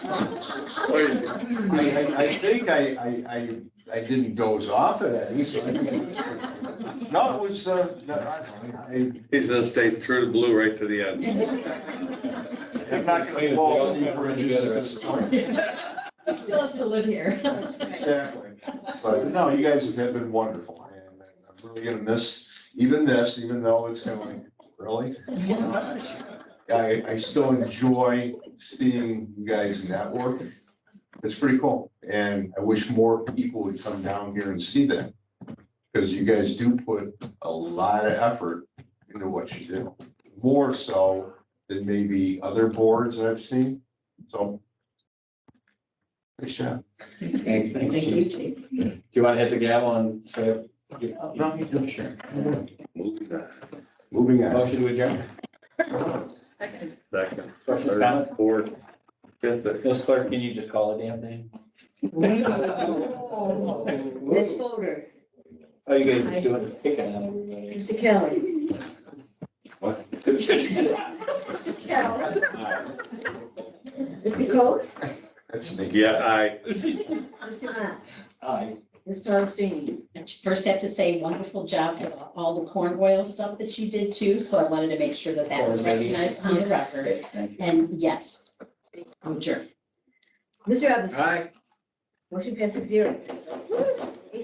Crazy. I, I, I think I, I, I, I didn't doze off of that, so I- No, it was, uh, no, I, I- He's gonna stay true to blue right to the end. I'm not gonna blow any bridges at this point. He still has to live here. Exactly. But no, you guys have been wonderful, and uh, I'm really gonna miss even this, even though it's kind of like, really? I, I still enjoy seeing you guys network. It's pretty cool, and I wish more people would come down here and see that. Because you guys do put a lot of effort into what you do, more so than maybe other boards I've seen, so. Good job. Thank you. Do you want to hit the gavel and say? Oh, No, sure. Moving on. Moving on. Motion to adjourn. Second, Question, third, comment? fourth, fifth. Miss Clerk, can you just call the damn thing? Ms. Fodor, Oh, you guys are doing a pick on everybody. Mr. Kelly. What? Mr. Kelly. Mr. Coe, That's me. Yeah, I, Mr. Matt, Aye. Ms. Paulson. I First have to say wonderful job for all the corn oil stuff that you did too, so I wanted to make sure that that was recognized on the record. Thank you. And yes, I'm sure. Mr. Robinson. Aye. Motion passes zero.